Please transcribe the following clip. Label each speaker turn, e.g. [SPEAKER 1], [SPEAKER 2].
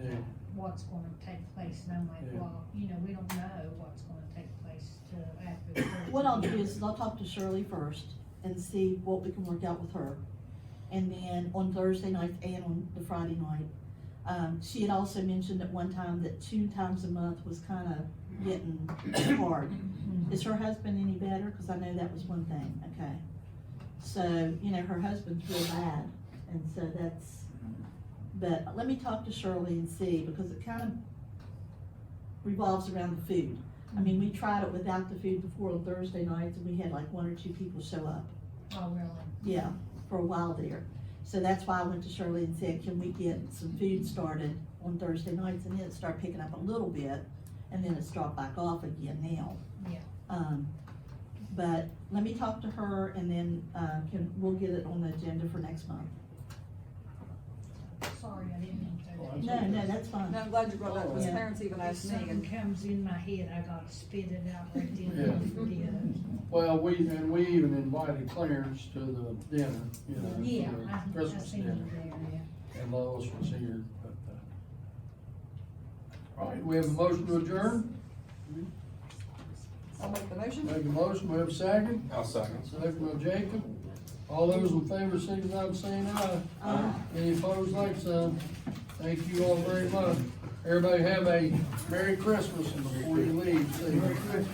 [SPEAKER 1] Yeah.
[SPEAKER 2] what's gonna take place, and I'm like,
[SPEAKER 1] Yeah.
[SPEAKER 2] well, you know, we don't know what's gonna take place till after. the first
[SPEAKER 3] What I'll do
[SPEAKER 2] year.
[SPEAKER 3] is I'll talk to Shirley first and see what we can work out with her. And then on Thursday night and on the Friday night, um, she had also mentioned at one time that two times a month was kind of getting hard.
[SPEAKER 2] Mhm.
[SPEAKER 3] Is her husband any better? Cause I know that was one thing, okay. So, you know, her husband's real bad, and so that's, but let me talk to Shirley and see, because it kind of revolves around the food. I mean, we tried it without the food before on Thursday nights, and we had like one or two people show up,
[SPEAKER 2] Oh, really?
[SPEAKER 3] yeah, for a while there. So that's why I went to Shirley and said, can we get some food started on Thursday nights, and then it start picking up a little bit, and then it's dropped back off again now.
[SPEAKER 2] Yeah.
[SPEAKER 3] Um, but let me talk to her and then, uh, can, we'll get it on the agenda for next month.
[SPEAKER 2] Sorry, I didn't mean to.
[SPEAKER 1] Oh,
[SPEAKER 2] do
[SPEAKER 1] I'm
[SPEAKER 3] No,
[SPEAKER 2] that.
[SPEAKER 3] no, that's
[SPEAKER 4] No,
[SPEAKER 3] fine.
[SPEAKER 4] I'm glad you brought that, because
[SPEAKER 3] Yeah.
[SPEAKER 4] parents even
[SPEAKER 2] If
[SPEAKER 4] asked me,
[SPEAKER 2] something
[SPEAKER 4] and
[SPEAKER 2] comes in my head, I gotta spit it out right then
[SPEAKER 1] Yeah.
[SPEAKER 2] and forget.
[SPEAKER 1] Well, we, and we even invited Clarence to the dinner, you know, for
[SPEAKER 2] Yeah, I,
[SPEAKER 1] the
[SPEAKER 2] I
[SPEAKER 1] Christmas
[SPEAKER 2] seen
[SPEAKER 1] dinner,
[SPEAKER 2] it there, yeah.
[SPEAKER 1] and Lois was here, but, uh. All right, we have a motion to adjourn,
[SPEAKER 4] I'll make the motion.
[SPEAKER 1] make a motion, we have a second,
[SPEAKER 5] I'll second.
[SPEAKER 1] second by Jacob. All those in favor, signify by saying aye.
[SPEAKER 3] Uh,
[SPEAKER 1] Any opposed, like sign. Thank you all very much. Everybody have a Merry Christmas before you leave. See you.